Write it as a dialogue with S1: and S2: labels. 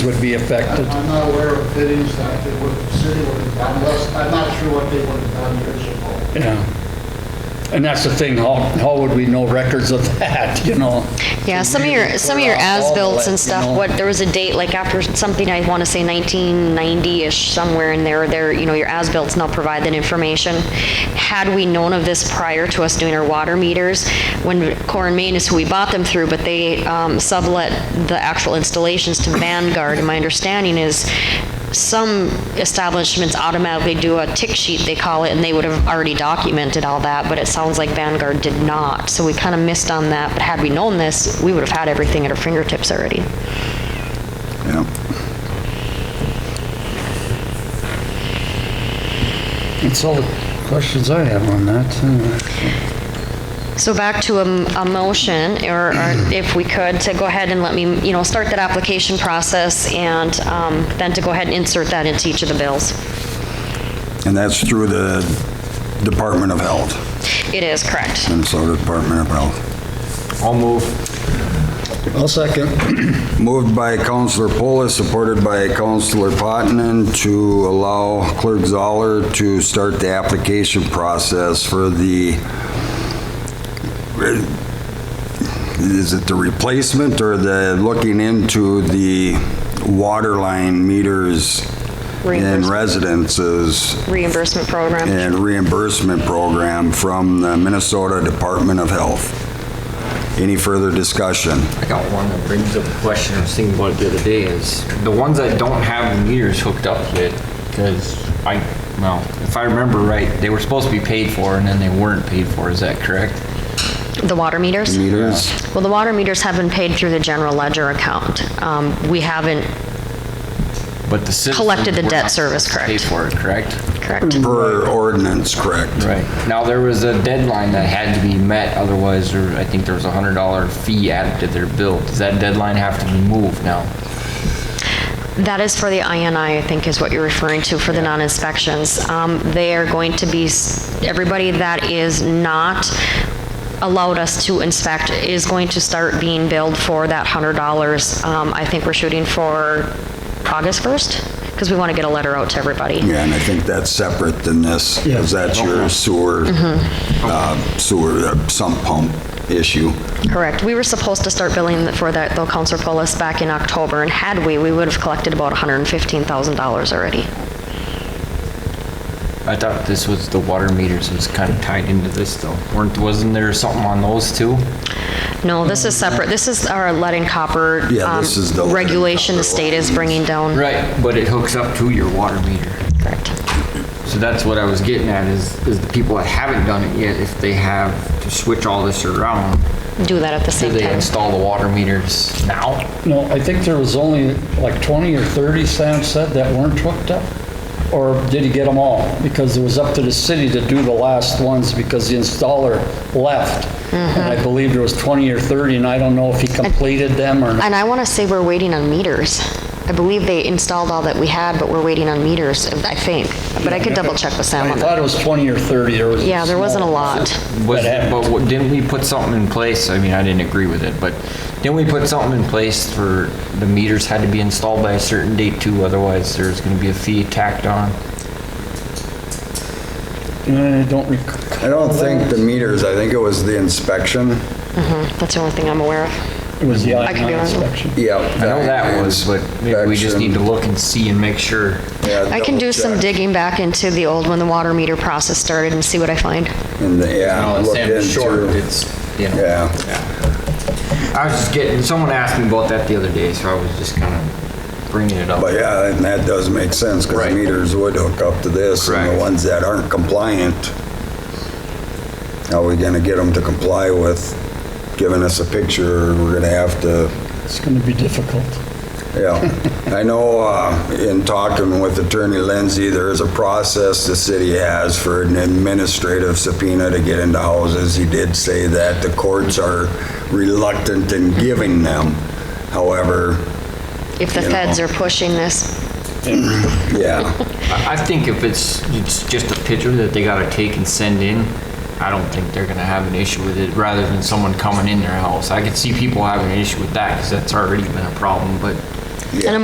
S1: would be affected?
S2: I'm not aware of fittings that they would, the city would have done, unless, I'm not sure what they would have done years ago.
S1: Yeah. And that's the thing, how, how would we know records of that, you know?
S3: Yeah, some of your, some of your as-bills and
S1: You know?
S3: stuff, what, there was a date, like after something, I want to say 1990-ish, somewhere in there, there, you know, your as-bills now provide that information. Had we known of this prior to us doing our water meters, when Core and Main is who we bought them through, but they um, sublet the actual installations to Vanguard, and my understanding is some establishments automatically do a tick sheet, they call it, and they would have already documented all that, but it sounds like Vanguard did not. So we kind of missed on that, but had we known this, we would have had everything at our fingertips already.
S1: That's all the questions I have on that. uh,
S3: So back to a, m- a motion, or or if we could, to go ahead and let me, you know, start that application process and um, then to go ahead and insert that into each of the bills.
S4: And that's through the Department of Health,
S3: It is correct.
S4: Minnesota Department of Health.
S5: I'll move.
S1: I'll second.
S4: Moved by Counselor Polis, supported by Counselor Potenon to allow Clerk Zoller to start the application process for the, is it the replacement or the looking into the water line meters in
S3: Reimbursement.
S4: residences
S3: Reimbursement program.
S4: and reimbursement program from the Minnesota Department of Health. Any further discussion?
S5: I got one that brings up a question I was thinking about it the other day is the ones that don't have the meters hooked up yet, because I, well, if I remember right, they were supposed to be paid for and then they weren't paid for, is that correct?
S3: The water meters?
S4: Meters?
S3: Well, the water meters have been paid through the general ledger account. Um, We haven't,
S5: But the citizens.
S3: Collected the
S5: were
S3: debt
S5: not
S3: service, correct.
S5: Paid for it, correct?
S3: correct?
S4: Per ordinance, correct?
S5: Right. Now, there was a deadline that had to be met, otherwise, there- I think there was a hundred dollar fee added to their bill. Does that deadline have to be moved now?
S3: That is for the INI, I think is what you're referring to, for the non-inspections. Um, They are going to be, s- everybody that is not allowed us to inspect is going to start being billed for that $100. Um, I think we're shooting for August 1st, because we want to get a letter out to everybody.
S4: Yeah, and I think that's separate than this, because that's
S5: Uh-huh.
S4: your sewer,
S5: Mm-hmm.
S4: uh, sewer uh, sump pump issue.
S3: Correct. We were supposed to start billing for that, though, Counselor Polis, back in October, and had we, we would have collected about $115,000 already.
S5: I thought this was, the water meters was kind of tied into this though. Weren't, wasn't there something on those too?
S3: No, this is separate. This is our lead and copper
S4: Yeah,
S3: um,
S4: this is the lead and
S3: regulation the
S4: copper
S3: state is
S4: one.
S3: bringing down.
S5: Right, but it hooks up to your water meter.
S3: Correct.
S5: So that's what I was getting at is, is the people that haven't done it yet, if they have to switch all this around,
S3: Do that at the
S5: do
S3: same
S5: they
S3: time.
S5: install the water meters now?
S1: No, I think there was only like 20 or 30, Sam said, that weren't hooked up. Or did he get them all? Because it was up to the city to do the last ones because the installer left. And
S3: Mm-hmm.
S1: I believe there was 20 or 30, and I don't know if he completed them or not.
S3: And I want to say we're waiting on meters. I believe they installed all that we had, but we're waiting on meters, I think. But I could double check with Sam
S1: I
S3: on that.
S1: thought it was 20 or 30, there was.
S3: Yeah, there wasn't a
S1: small-
S3: lot.
S5: Was,
S1: That happened.
S5: but what- didn't we put something in place? I mean, I didn't agree with it, but didn't we put something in place for the meters had to be installed by a certain date too? Otherwise, there's gonna be a fee tacked on.
S1: I don't recall.
S4: I don't think the meters, I think it was the inspection.
S3: That's the only thing I'm aware of.
S1: It was the
S3: could
S1: I-9
S3: be wrong.
S1: inspection.
S4: Yeah.
S5: I know that was, but maybe we just need to look and see and make sure.
S3: I can do some digging back into the old, when the water meter process started and see what I find.
S4: Yeah,
S5: No,
S4: look
S5: Sam is short,
S4: into,
S5: it's, you know.
S4: yeah.
S5: I was just getting, someone asked me about that the other day, so I was just kind of bringing it up.
S4: But yeah, and that does make sense, because
S5: Right.
S4: meters would hook up to this, and the
S5: Correct.
S4: ones that aren't compliant, how are we gonna get them to comply with giving us a picture? We're gonna have to,
S1: It's going to be difficult.
S4: yeah. I know, uh, in talking with Attorney Lindsay, there is a process the city has for an administrative subpoena to get into houses. He did say that the courts are reluctant in giving them. However,
S3: If the
S4: You know.
S3: feds are pushing this,
S4: yeah.
S5: I I think if it's, it's just a picture that they gotta take and send in, I don't think they're gonna have an issue with it, rather than someone coming in their house. I could see people having an issue with that, because that's already been a problem, but
S3: and I'm